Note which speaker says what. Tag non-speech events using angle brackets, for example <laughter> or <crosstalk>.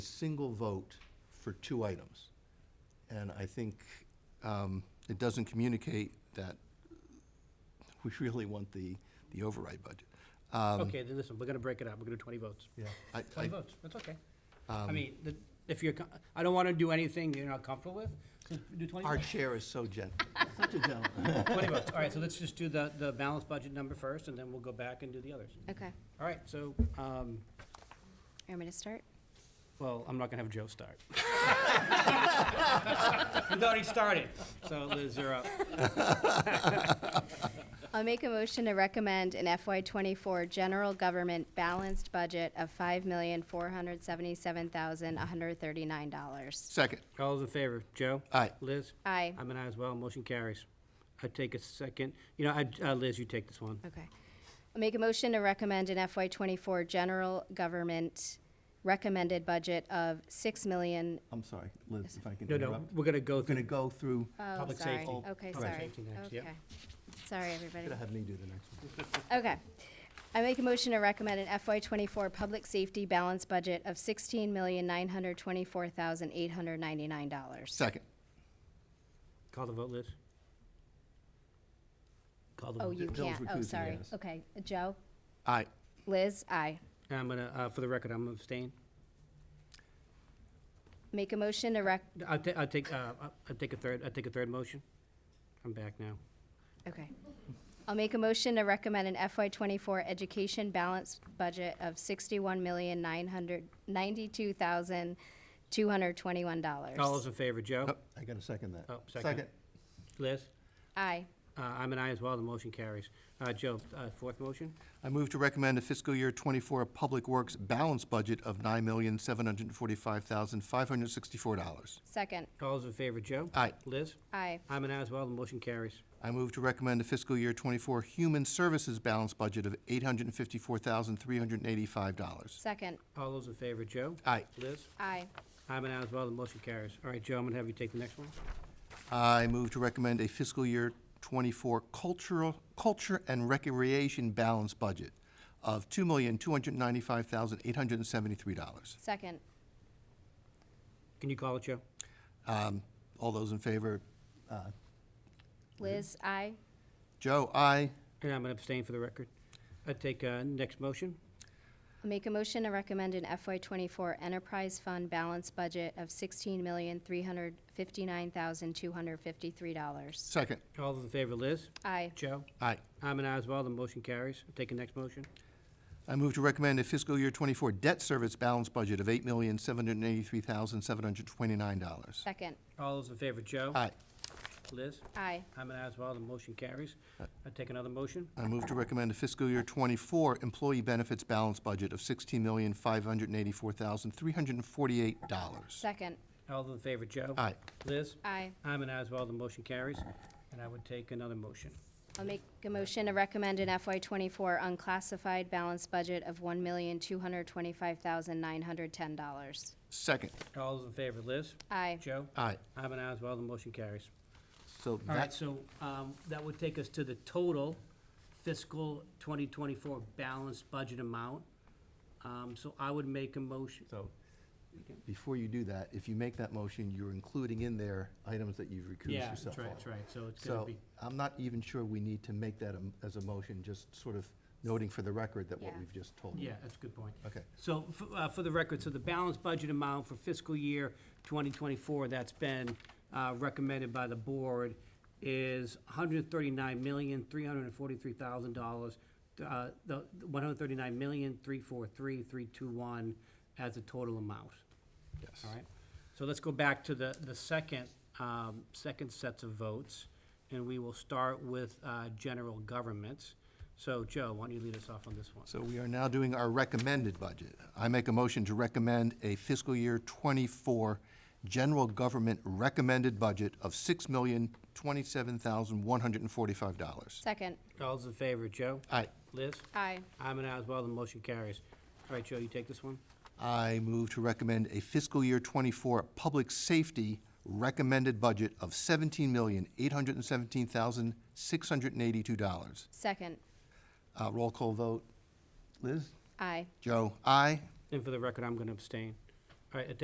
Speaker 1: single vote for two items. And I think um, it doesn't communicate that we really want the, the override budget. Um,
Speaker 2: Okay, then listen, we're gonna break it up, we're gonna do twenty votes.
Speaker 1: I-
Speaker 2: Twenty
Speaker 1: I-
Speaker 2: votes, that's okay.
Speaker 1: Um,
Speaker 2: I mean, the- if you're, co- I don't wanna do anything you're not comfortable with, so do twenty
Speaker 1: Our
Speaker 2: votes.
Speaker 1: chair is so gentle, <laughs> such a gentleman.
Speaker 2: Twenty votes, all right, so let's just do the, the balanced budget number first, and then we'll go back and do the others.
Speaker 3: Okay,
Speaker 2: All right, so, um,
Speaker 3: you want me to start?
Speaker 2: well, I'm not gonna have Joe start. <laughs> He's already started, so Liz, you're up.
Speaker 3: I'll make a motion to recommend an FY twenty-four general government balanced budget of five million, four hundred seventy-seven thousand, one hundred thirty-nine dollars.
Speaker 1: Second,
Speaker 2: All those in favor, Joe?
Speaker 1: Aye.
Speaker 2: Liz?
Speaker 3: Aye.
Speaker 2: I'm an aye as well, motion carries. I take a second, you know, I, uh, Liz, you take this one.
Speaker 3: Okay. I'll make a motion to recommend an FY twenty-four general government recommended budget of six million,
Speaker 1: I'm sorry, Liz, if I can
Speaker 2: No, no,
Speaker 1: interrupt.
Speaker 2: we're gonna go
Speaker 1: We're going to
Speaker 2: through,
Speaker 1: go through,
Speaker 3: oh,
Speaker 2: Public
Speaker 3: sorry.
Speaker 2: safety.
Speaker 3: Okay,
Speaker 2: Public
Speaker 3: sorry.
Speaker 2: safety next, yep.
Speaker 3: Okay. Sorry, everybody.
Speaker 1: could have had me do the next one.
Speaker 3: Okay. I make a motion to recommend an FY twenty-four public safety balance budget of sixteen million, nine hundred twenty-four thousand, eight hundred ninety-nine dollars.
Speaker 1: Second,
Speaker 2: call the vote, Liz. Call the
Speaker 3: Oh,
Speaker 2: vote.
Speaker 3: you
Speaker 1: Joe's
Speaker 3: can't. Oh,
Speaker 1: recusing,
Speaker 3: sorry.
Speaker 1: yes.
Speaker 3: Okay. Joe?
Speaker 1: aye.
Speaker 3: Liz? Aye.
Speaker 2: And I'm gonna, uh, for the record, I'm abstaining.
Speaker 3: Make a motion to rec,
Speaker 2: I'll ta- I'll take, uh, I'll- I'll take a third, I'll take a third motion. I'm back now.
Speaker 3: okay. I'll make a motion to recommend an FY twenty-four education balance budget of sixty-one million, nine hundred ninety-two thousand, two hundred twenty-one
Speaker 2: All those
Speaker 3: dollars.
Speaker 2: in favor, Joe?
Speaker 1: Oh, I got to second that.
Speaker 2: Oh, second. Liz?
Speaker 3: Aye.
Speaker 2: Uh, I'm an aye as well, the motion carries. Uh, Joe, uh, fourth motion?
Speaker 1: I move to recommend a fiscal year '24 Public Works balance budget of $9,745,564.
Speaker 3: Second.
Speaker 2: All those in favor, Joe?
Speaker 1: Aye.
Speaker 2: Liz?
Speaker 3: Aye.
Speaker 2: I'm an aye as well, the motion carries.
Speaker 1: I move to recommend a fiscal year '24 Human Services balance budget of $854,385.
Speaker 3: Second.
Speaker 2: All those in favor, Joe?
Speaker 1: Aye.
Speaker 2: Liz?
Speaker 3: Aye.
Speaker 2: I'm an aye as well, the motion carries. All right, Joe, I'm gonna have you take the next one.
Speaker 1: I move to recommend a fiscal year '24 Cultural, Culture and Recreation balance budget of $2,295,873.
Speaker 3: Second.
Speaker 2: Can you call it, Joe?
Speaker 1: Um, All those in favor? Uh,
Speaker 3: Liz? Aye.
Speaker 1: Joe, aye.
Speaker 2: And I'm gonna abstain for the record. I take, uh, next motion.
Speaker 3: I'll Make a motion to recommend an FY twenty-four enterprise fund balance budget of sixteen million, three hundred fifty-nine thousand, two hundred fifty-three dollars.
Speaker 1: Second.
Speaker 2: All those in favor, Liz?
Speaker 3: Aye.
Speaker 2: Joe?
Speaker 1: Aye.
Speaker 2: I'm an aye as well, the motion carries. Take the next motion.
Speaker 1: I move to recommend a fiscal year '24 debt service balance budget of $8,783,729.
Speaker 3: Second.
Speaker 2: All those in favor, Joe?
Speaker 1: Aye.
Speaker 2: Liz?
Speaker 3: Aye.
Speaker 2: I'm an aye as well, the motion carries. I take another motion.
Speaker 1: I move to recommend a fiscal year '24 employee benefits balance budget of $16,584,348.
Speaker 3: Second.
Speaker 2: All those in favor, Joe?
Speaker 1: Aye.
Speaker 2: Liz?
Speaker 3: Aye.
Speaker 2: I'm an aye as well, the motion carries. And I would take another motion.
Speaker 3: I'll make a motion to recommend an FY twenty-four unclassified balance budget of one million, two hundred twenty-five thousand, nine hundred ten dollars.
Speaker 1: Second.
Speaker 2: All those in favor, Liz?
Speaker 3: Aye.
Speaker 2: Joe?
Speaker 1: Aye.
Speaker 2: I'm an aye as well, the motion carries.
Speaker 1: So
Speaker 2: All right,
Speaker 1: that's,
Speaker 2: so um, that would take us to the total fiscal 2024 balanced budget amount. Um, So I would make a motion,
Speaker 1: so, before you do that, if you make that motion, you're including in there items that you've recused
Speaker 2: yeah,
Speaker 1: yourself
Speaker 2: that's
Speaker 1: on.
Speaker 2: right, that's right, so it's gonna
Speaker 1: So
Speaker 2: be,
Speaker 1: I'm not even sure we need to make that a- as a motion, just sort of noting for the record that what
Speaker 3: Yeah.
Speaker 1: we've just told you.
Speaker 2: yeah, that's a good point.
Speaker 1: Okay.
Speaker 2: So, f- uh, for the record, so the balanced budget amount for fiscal year 2024 that's been uh, recommended by the board is $139,343,000, uh, the $139,343,321 as a total amount,
Speaker 1: Yes.
Speaker 2: all right? So let's go back to the, the second, um, second sets of votes, and we will start with uh, general governments. So Joe, why don't you lead us off on this one?
Speaker 1: So we are now doing our recommended budget. I make a motion to recommend a fiscal year '24 general government recommended budget of $6,027,145.
Speaker 3: Second.
Speaker 2: All those in favor, Joe?
Speaker 1: Aye.
Speaker 2: Liz?
Speaker 3: Aye.
Speaker 2: I'm an aye as well, the motion carries. All right, Joe, you take this one?
Speaker 1: I move to recommend a fiscal year '24 public safety recommended budget of $17,817,682.
Speaker 3: Second.
Speaker 1: Uh, Roll call vote. Liz?
Speaker 3: Aye.
Speaker 1: Joe? Aye.
Speaker 2: And for the record, I'm going to abstain. All right, at